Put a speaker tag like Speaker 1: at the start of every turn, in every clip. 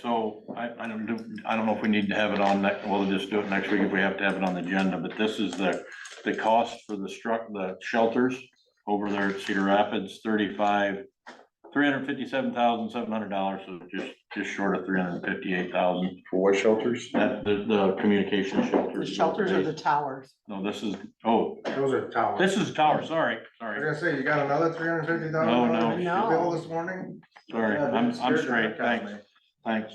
Speaker 1: So I, I don't do, I don't know if we need to have it on next, we'll just do it next week if we have to have it on the agenda, but this is the, the cost for the struck, the shelters over there at Cedar Rapids, thirty-five, three hundred fifty-seven thousand, seven hundred dollars, so just, just short of three hundred fifty-eight thousand.
Speaker 2: For what shelters?
Speaker 1: That, the, the communication
Speaker 3: The
Speaker 1: shelters.
Speaker 3: shelters or the towers?
Speaker 1: No, this is, oh,
Speaker 2: Those are towers.
Speaker 1: this is tower, sorry,
Speaker 2: I
Speaker 1: sorry,
Speaker 2: was gonna say, you got another three hundred fifty thousand?
Speaker 1: No, no.
Speaker 2: Bill this morning?
Speaker 1: sorry, I'm, I'm straight, thanks. Thanks.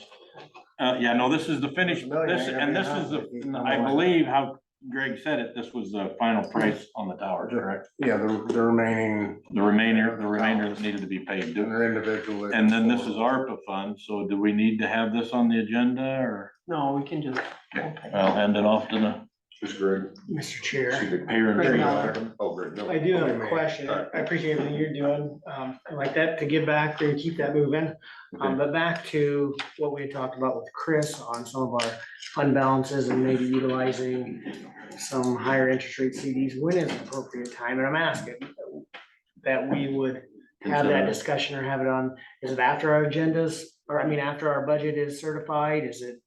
Speaker 1: Uh, yeah, no, this is the finish,
Speaker 2: Familiar,
Speaker 1: this,
Speaker 2: yeah,
Speaker 1: and this
Speaker 2: yeah.
Speaker 1: is the, I believe how Greg said it, this was the final price on the tower, correct?
Speaker 2: Yeah, the, the remaining,
Speaker 1: The remainder, the remainder that needed to be paid. Do-
Speaker 2: they're individual.
Speaker 1: And then this is ARPA fund, so do we need to have this on the agenda or?
Speaker 3: No, we can just.
Speaker 1: I'll hand it off to the
Speaker 2: Who's Greg?
Speaker 4: Mr. Chair,
Speaker 1: payer. and
Speaker 4: Greg
Speaker 1: tree.
Speaker 4: Miller.
Speaker 2: Oh, Greg. Miller.
Speaker 4: I do have
Speaker 2: Okay,
Speaker 4: a
Speaker 2: man.
Speaker 4: question. I appreciate everything you're doing. Um, I like that to give back and keep that moving. Um, but back to what we had talked about with Chris on some of our fund balances and maybe utilizing some higher interest rate CDs when is an appropriate time, and I'm asking that we would have that discussion or have it on, is it after our agendas? Or I mean, after our budget is certified, is it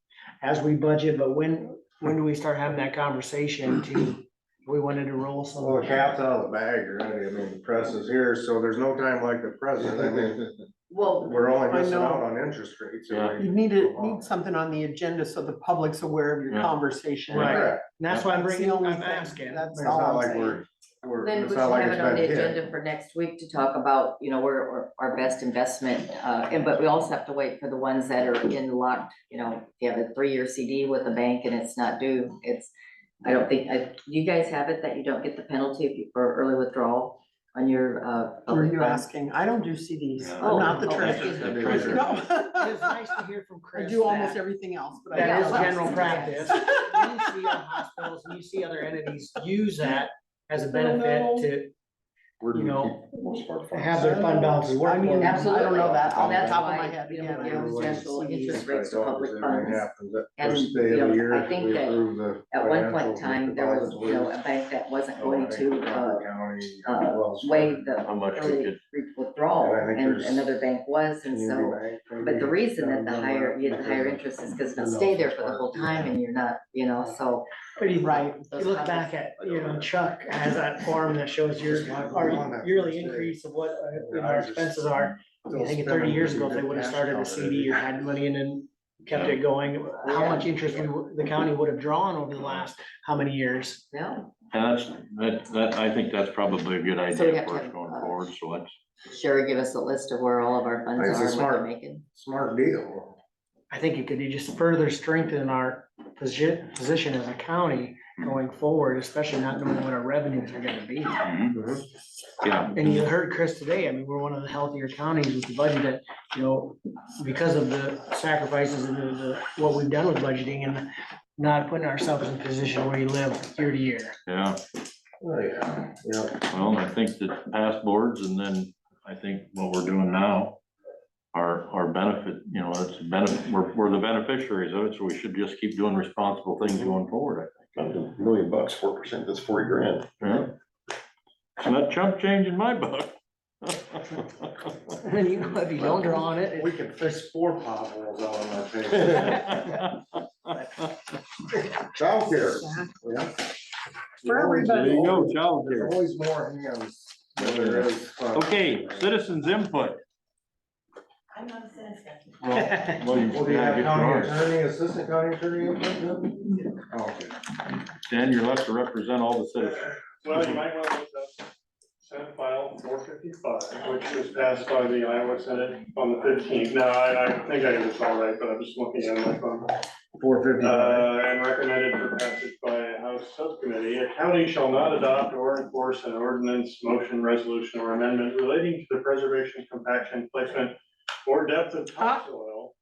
Speaker 4: as we budget, but when, when do we start having that conversation to, we wanted to roll some?
Speaker 2: Well, the cat's out of the bag already. I mean, the press is here, so there's no time like the present. I mean,
Speaker 3: Well,
Speaker 2: we're only
Speaker 3: I
Speaker 2: missing
Speaker 3: know.
Speaker 2: out on interest rates. I mean,
Speaker 3: you need to, need something on the agenda so the public's aware of your
Speaker 1: Yeah.
Speaker 3: conversation.
Speaker 1: Right.
Speaker 2: correct.
Speaker 4: And that's why I'm
Speaker 3: That's the
Speaker 4: bringing, I'm
Speaker 3: only thing.
Speaker 4: asking.
Speaker 3: That's
Speaker 2: It's
Speaker 3: all
Speaker 2: not
Speaker 3: I'm
Speaker 2: like
Speaker 3: saying.
Speaker 2: we're, we're,
Speaker 5: Then we
Speaker 2: it's
Speaker 5: should
Speaker 2: not like
Speaker 5: have
Speaker 2: it's
Speaker 5: it on
Speaker 2: been
Speaker 5: the
Speaker 2: hit.
Speaker 5: agenda for next week to talk about, you know, where, where our best investment, uh, and but we also have to wait for the ones that are in locked, you know, if you have a three-year CD with a bank and it's not due, it's, I don't think, I, you guys have it that you don't get the penalty if you- for early withdrawal on your, uh.
Speaker 3: Were
Speaker 5: public
Speaker 3: you
Speaker 5: funds?
Speaker 3: asking? I don't do CDs.
Speaker 1: Oh,
Speaker 3: I'm not the
Speaker 5: okay.
Speaker 3: treasurer.
Speaker 1: treasurer.
Speaker 4: It's
Speaker 3: No.
Speaker 4: nice to hear from
Speaker 3: I
Speaker 4: Chris.
Speaker 3: do almost
Speaker 4: that
Speaker 3: everything else, but. I
Speaker 4: That is
Speaker 3: don't.
Speaker 4: general practice. You see other hospitals, and you see other entities use that as a benefit
Speaker 2: We're-
Speaker 4: You know,
Speaker 2: most of our
Speaker 4: to
Speaker 2: funds.
Speaker 4: have their fund balances work.
Speaker 3: I mean, I don't
Speaker 5: Absolutely.
Speaker 3: know that off
Speaker 5: And
Speaker 3: the
Speaker 5: that's
Speaker 3: top of my
Speaker 5: why
Speaker 3: head.
Speaker 5: you
Speaker 3: again,
Speaker 5: don't
Speaker 3: I
Speaker 5: give
Speaker 3: don't do
Speaker 5: special
Speaker 3: CDs.
Speaker 5: interest rates to public
Speaker 2: Everything
Speaker 5: funds.
Speaker 2: happens at
Speaker 5: And,
Speaker 2: first day of the
Speaker 5: you know,
Speaker 2: year
Speaker 5: I
Speaker 2: is we
Speaker 5: think that
Speaker 2: approve the
Speaker 5: At one point in
Speaker 2: financials
Speaker 5: time,
Speaker 2: with
Speaker 5: there was, you know,
Speaker 2: depositors.
Speaker 5: a bank that wasn't
Speaker 2: Oh, I
Speaker 5: going
Speaker 2: think
Speaker 5: to, uh,
Speaker 2: Crawford County,
Speaker 5: uh,
Speaker 2: Wells
Speaker 5: waive the
Speaker 1: How much we
Speaker 5: early
Speaker 1: could,
Speaker 5: withdrawal,
Speaker 2: And I think
Speaker 5: and
Speaker 2: there's
Speaker 5: another bank was, and so.
Speaker 2: Community Bank, maybe,
Speaker 5: But the reason that the
Speaker 2: down
Speaker 5: higher,
Speaker 2: there.
Speaker 5: you had the higher interest is because
Speaker 2: I
Speaker 5: they'll
Speaker 2: don't know
Speaker 5: stay
Speaker 2: if
Speaker 5: there
Speaker 2: it's
Speaker 5: for the
Speaker 2: part
Speaker 5: whole
Speaker 2: of it.
Speaker 5: time and you're not, you know, so.
Speaker 4: But you-
Speaker 3: Right.
Speaker 4: You look back at, you know, Chuck has that form that shows your, our yearly increase of what uh, you know, our expenses are. I think thirty years ago, if they would have started a CD or had money and then kept it going, how much interest we would- the county would have drawn over the last, how many years?
Speaker 5: No,
Speaker 1: and that's, that, that, I think that's probably a good
Speaker 5: we
Speaker 1: idea
Speaker 5: have to
Speaker 1: for us
Speaker 5: have,
Speaker 1: going
Speaker 5: uh,
Speaker 1: forward, so let's.
Speaker 5: Sherry give us a list of where all of our funds
Speaker 2: It's a
Speaker 5: are, and what
Speaker 2: smart-
Speaker 5: they're making.
Speaker 2: Smart deal.
Speaker 4: I think it could be just further strengthen our position, position as a county going forward, especially not knowing what our revenues are gonna be.
Speaker 1: Mhm.
Speaker 2: Mhm.
Speaker 1: Yeah,
Speaker 4: And you heard Chris today, I mean, we're one of the healthier counties with the budget that, you know, because of the sacrifices and the, the- what we've done with budgeting and not putting ourselves in a position where you live year to year.
Speaker 1: yeah.
Speaker 2: Oh, yeah, yeah.
Speaker 1: Well, I think the past boards and then I think what we're doing now are, are benefit, you know, it's benefit, we're, we're the beneficiaries of it, so we should just keep doing responsible things going forward, I think.
Speaker 2: Million bucks, four percent, that's forty grand.
Speaker 1: Yeah. It's not chump change in my book.
Speaker 4: And then, you know, if you don't draw on it,
Speaker 2: We can fix four potholes out on our page. Childcare. yeah.
Speaker 3: For
Speaker 1: There
Speaker 3: everybody.
Speaker 1: you go, child
Speaker 2: There's always more hands. than there is funds.
Speaker 1: Okay, citizens input.
Speaker 5: I'm not a citizen.
Speaker 4: it-
Speaker 1: Well, you-
Speaker 2: Well, do you have
Speaker 1: yeah,
Speaker 2: county
Speaker 1: get yours.
Speaker 2: attorney, assistant county attorney? input then? Oh, Okay.
Speaker 1: Dan, you're left to represent all the citizens.
Speaker 6: Well, you might want to look up Senate File four fifty-five, which was passed by the Iowa Senate on the fifteenth. Now, I, I think I did this all right, but I'm just looking at my phone.
Speaker 2: Four fifty.
Speaker 6: Uh, and recommended for passage by a House subcommittee, a county shall not adopt or enforce an ordinance, motion, resolution, or amendment relating to the preservation, compaction, placement, or depth of topsoil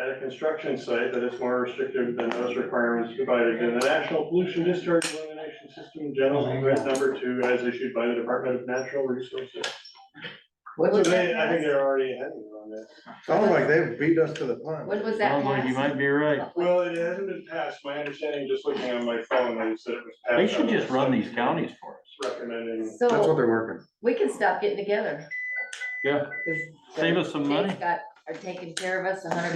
Speaker 6: at a construction site that is more restrictive than those requirements provided in the National Pollution Discharge Elimination System General Permit Number Two as issued by the Department of Natural Resources.
Speaker 5: What
Speaker 6: So
Speaker 5: was
Speaker 6: they,
Speaker 5: that
Speaker 6: I
Speaker 5: passed?
Speaker 6: think they're already ahead on this.
Speaker 2: Sounds like they beat us to the punch.
Speaker 5: When was that
Speaker 1: Sounds like you
Speaker 5: passed?
Speaker 1: might be right.
Speaker 6: Well, it hasn't been passed. My understanding, just looking on my phone, is that it was passed.
Speaker 1: They should just run these
Speaker 6: counties.
Speaker 1: counties for us.
Speaker 6: recommending.
Speaker 2: That's what
Speaker 5: So
Speaker 2: they're working.
Speaker 5: we can stop getting together.
Speaker 1: Yeah.
Speaker 5: 'Cause
Speaker 1: Save us some money.
Speaker 5: states Got, are taking care of us a hundred